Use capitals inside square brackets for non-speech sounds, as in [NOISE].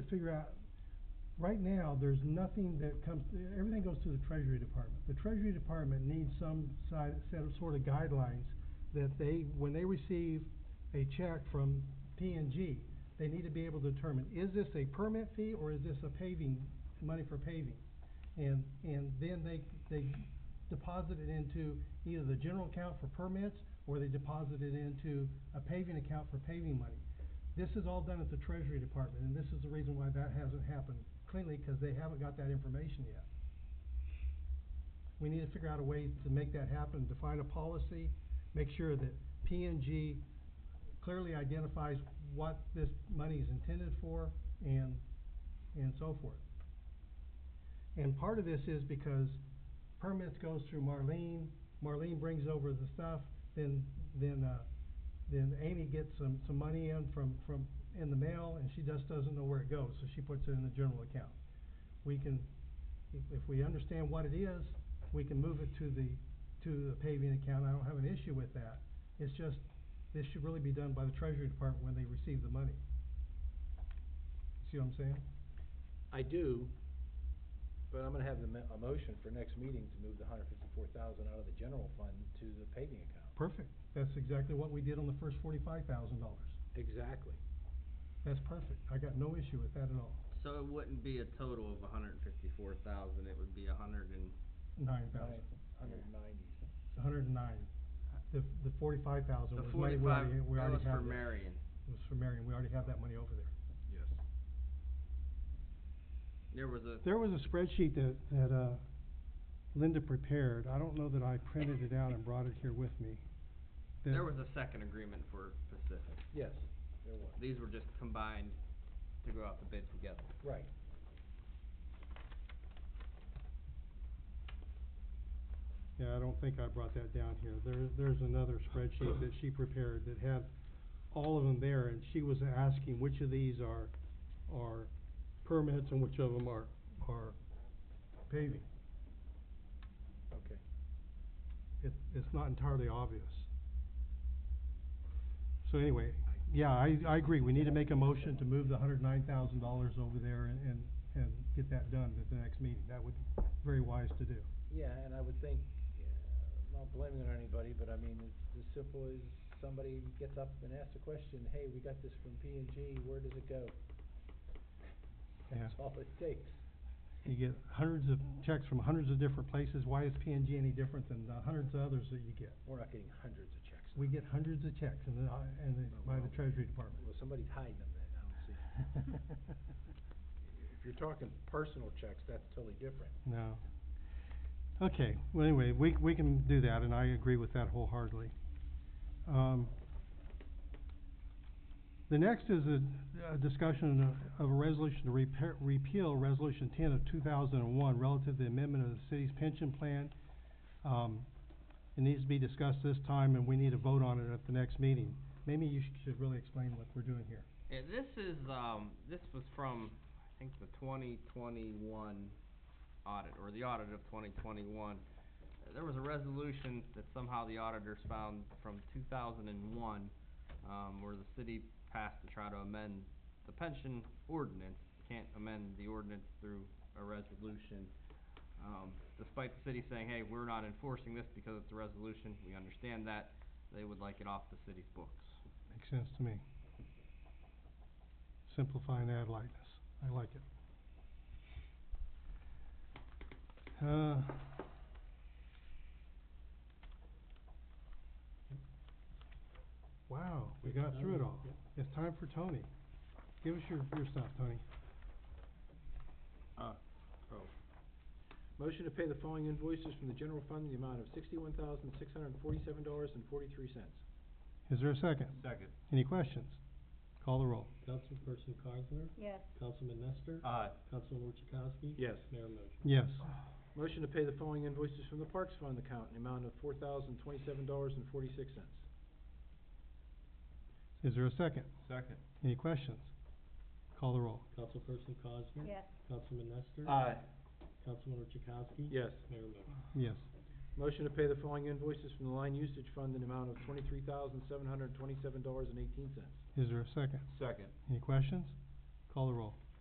to figure out, right now, there's nothing that comes, everything goes to the Treasury Department. The Treasury Department needs some side, set of sort of guidelines that they, when they receive a check from P and G, they need to be able to determine, is this a permit fee or is this a paving, money for paving? And, and then they, they deposit it into either the general account for permits or they deposit it into a paving account for paving money. This is all done at the Treasury Department, and this is the reason why that hasn't happened cleanly, because they haven't got that information yet. We need to figure out a way to make that happen, define a policy, make sure that P and G clearly identifies what this money is intended for and, and so forth. And part of this is because permits goes through Marlene, Marlene brings over the stuff, then, then, uh, then Amy gets some, some money in from, from, in the mail, and she just doesn't know where it goes, so she puts it in the general account. We can, if, if we understand what it is, we can move it to the, to the paving account, I don't have an issue with that. It's just, this should really be done by the Treasury Department when they receive the money. See what I'm saying? I do, but I'm gonna have the mo- a motion for next meeting to move the hundred fifty-four thousand out of the general fund to the paving account. Perfect, that's exactly what we did on the first forty-five thousand dollars. Exactly. That's perfect, I got no issue with that at all, So it wouldn't be a total of hundred and fifty-four thousand, it would be a hundred and, nine thousand. Hundred and ninety. It's hundred and nine. The, the forty-five thousand the was money we forty-five, already, we that already was have. there. for Marion. It was for Marion, we already have that money over there. Yes. There was a, There was a spreadsheet that, that, uh, Linda prepared, I don't know that I printed it out and brought it here with me. that- there was a second agreement for Pacific. Yes, there was, These were just combined to go out to bid together. right. Yeah, I don't think I brought that down here, there, there's another spreadsheet that she prepared that had all of them there, and she was asking which of these are, are permits and which of them are, are paving. Okay. it, it's not entirely obvious. So anyway, yeah, I, I agree, we need to make a motion to move the hundred nine thousand dollars over there and, and, and get that done at the next meeting, that would be very wise to do. Yeah, and I would think, yeah, I'm not blaming it on anybody, but I mean, it's as simple as somebody gets up and asks a question, hey, we got this from P and G, where does it go? That's Yeah. all it takes. You get hundreds of checks from hundreds of different places, why is P and G any different than the hundreds of others that you get? We're not getting hundreds of checks. We get hundreds of checks and then, I- and then by the Treasury Department. [LAUGHS] Well, somebody's hiding them then, I don't see. If you're talking personal checks, that's totally different. No. Okay, well, anyway, we, we can do that, and I agree with that wholeheartedly. Um, the next is a, a discussion of- of a resolution to repair, repeal Resolution ten of two thousand and one relative to the amendment of the city's pension plan. Um, it needs to be discussed this time, and we need to vote on it at the next meeting. Maybe you sh- should really explain what we're doing here. Yeah, this is, um, this was from, I think, the twenty twenty-one audit, or the audit of twenty twenty-one. There was a resolution that somehow the auditors found from two thousand and one, um, where the city passed to try to amend the pension ordinance. Can't amend the ordinance through a resolution. Um, despite the city saying, hey, we're not enforcing this because it's a resolution, we understand that, they would like it off the city's books. Makes sense to me. Simplify and add lightness. I like it. Uh, wow, we got through it all. It's time for Tony. Give us your, your stuff, Tony. Motion to pay the following invoices from the general fund in the amount of sixty-one thousand, six hundred and forty-seven dollars and forty-three cents. Is there a second? Second. Any questions? Call the roll. Councilperson Cosner, Yes, Councilman Nestor, Aye. Councilman Orchakowski. Yes. Mayor motion. Yes. Motion to pay the following invoices from the Parks Fund account in the amount of four thousand, twenty-seven dollars and forty-six cents. Is there a second? Second. Any questions? Call the roll. Councilperson Cosner. yes, Councilman Nestor. Aye. Councilman Orchakowski. Yes. Mayor motion. Yes. Motion to pay the following invoices from the line usage fund in the amount of twenty-three thousand, seven hundred and twenty-seven dollars and eighteen cents. Is there a second? Second. Any questions? Call the roll.